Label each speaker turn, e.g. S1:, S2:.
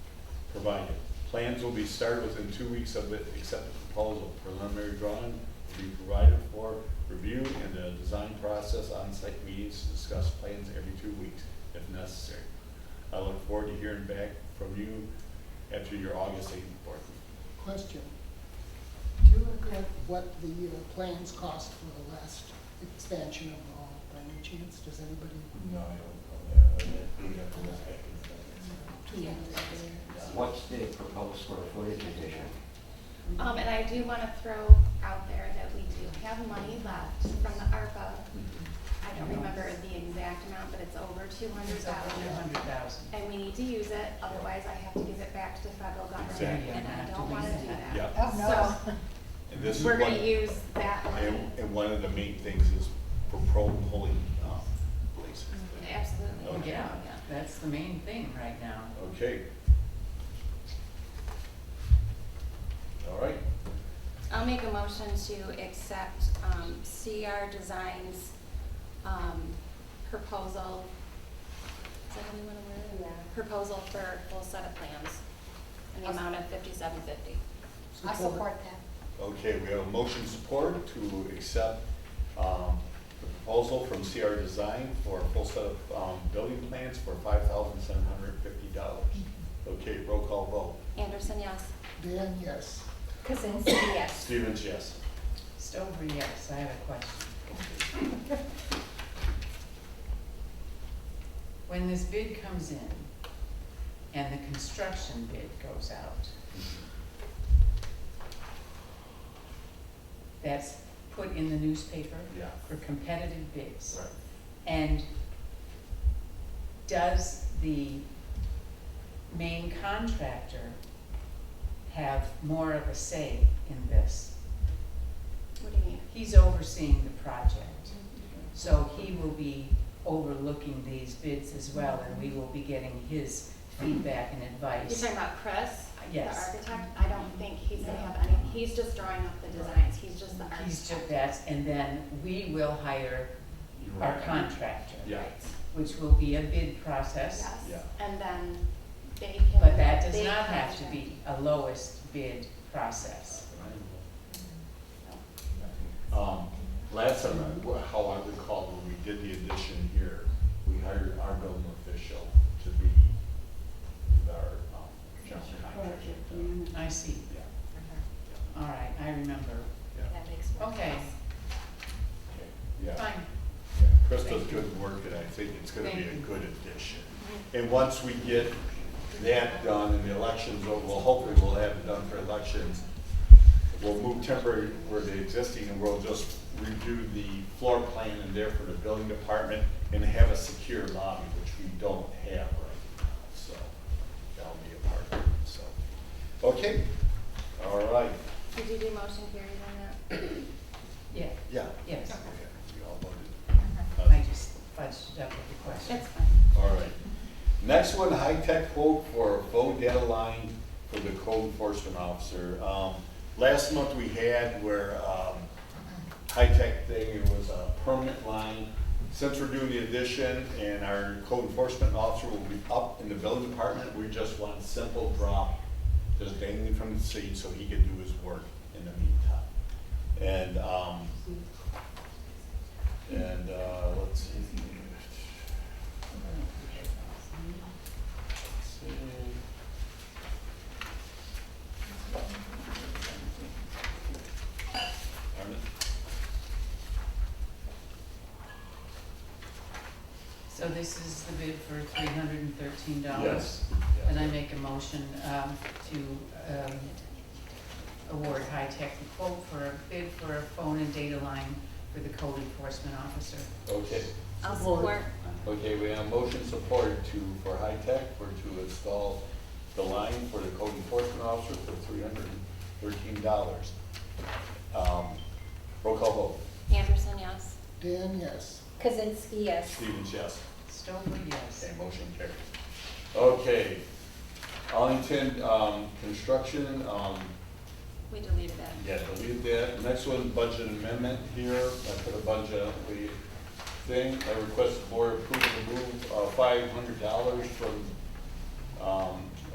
S1: provided. Plans will be started within two weeks of the accepted proposal. Preliminary drawing will be provided for review and the design process on-site meetings to discuss plans every two weeks if necessary. I look forward to hearing back from you after your August eighth board meeting.
S2: Question. Do you regret what the uh, plans cost for the last expansion of the hall by any chance? Does anybody?
S3: No, I don't know that. We'd have to look back
S2: Too late to say.
S4: What's the proposed square footage addition?
S5: Um, and I do wanna throw out there that we do have money left from the ARPA. I don't remember the exact amount, but it's over two hundred thousand. And we need to use it, otherwise I have to give it back to the federal government,
S1: Exactly.
S5: and I don't wanna do that.
S1: Yeah,
S5: So,
S1: and this is
S5: we're
S1: one-
S5: gonna e- use that money,
S1: And, and one of the main things is for pro polling, um, places.
S5: Mm-hmm. absolutely.
S6: Yeah, that's the main thing right now.
S1: Okay. All right,
S5: I'll make a motion to accept, um, CR Designs, um, proposal. Is that how you wanna word it? Proposal for full set of plans in the amount of fifty-seven fifty.
S7: I support that.
S1: okay, we have a motion support to accept, um, the proposal from CR Design for a full set of, um, building plans for five thousand seven hundred and fifty dollars. Okay, roll call vote.
S5: Anderson, yes.
S2: Dan, yes.
S7: Kazinsky, yes.
S1: Stevens, yes.
S6: Stover, yes, I have a question. When this bid comes in and the construction bid goes out, that's put in the newspaper
S1: Yeah.
S6: for competitive bids.
S1: Right.
S6: And does the main contractor have more of a say in this?
S5: What do you mean?
S6: He's overseeing the project, so he will be overlooking these bids as well, and we will be getting his feedback and
S5: You're
S6: advice.
S5: talking about Chris, the
S6: Yes.
S5: architect? I don't think he's gonna have any, he's just drawing up the designs, he's just the
S6: He's
S5: architect.
S6: took that, and then we will hire
S1: You're
S6: our
S1: right.
S6: contractor,
S1: Yeah,
S5: Right.
S6: which will be a bid process.
S5: Yes,
S1: Yeah.
S5: and then they can.
S6: But that does
S5: they
S6: not
S5: can-
S6: have to be a lowest bid process.
S1: Um, Last time, I- how I recall, when we did the addition here, we hired our building official to be our um, general contractor.
S6: I see,
S1: Yeah,
S6: all right, I remember,
S1: yeah,
S7: That makes more
S6: Okay.
S7: sense.
S1: okay, yeah.
S6: fine.
S1: yeah. Chris does
S6: Thank you.
S1: good work, and I think it's gonna be a
S6: Thank you.
S1: good addition. And once we get that done and the elections, over, well, hopefully we'll have it done for elections, we'll move temporary where the existing, and we'll just redo the floor plan and therefore the building department, and have a secure lobby, which we don't have right now, so that'll be a part of it, so. Okay, all right,
S5: Did you do motion carries on that?
S6: Yeah,
S1: yeah.
S6: yes,
S1: Okay, We all voted.
S6: I just fudged it up with the question.
S5: It's fine.
S1: All right. Next one, high-tech quote for a phone data line for the code enforcement officer. Um, Last month we had where, um, high-tech thing, it was a permanent line. Since we're doing the addition and our code enforcement officer will be up in the building department, we just want a simple drop just dangling from the seat so he can do his work in the meantime. And, um, and, uh, let's see. Armin?
S6: So this is the bid for three hundred and thirteen dollars?
S1: Yes.
S6: And I make a motion um, to um, award High Tech the quote for a bid for a phone and data line for the code enforcement officer.
S1: Okay,
S5: I'll
S2: Support.
S5: support.
S1: okay, we have motion support to, for high tech, for to install the line for the code enforcement officer for three hundred and thirteen dollars. Um, roll call
S5: Anderson, yes.
S2: Dan, yes.
S7: Kazinsky,
S1: vote,
S7: yes.
S1: Stevens, yes.
S6: Stover, yes.
S1: Okay, motion carries. Okay, Arlington, um, construction, um,
S5: We deleted it.
S1: Yeah, delete that. Next one, budget amendment here, I put a budget, the thing, I request the board approve the move, uh, five hundred dollars from, um,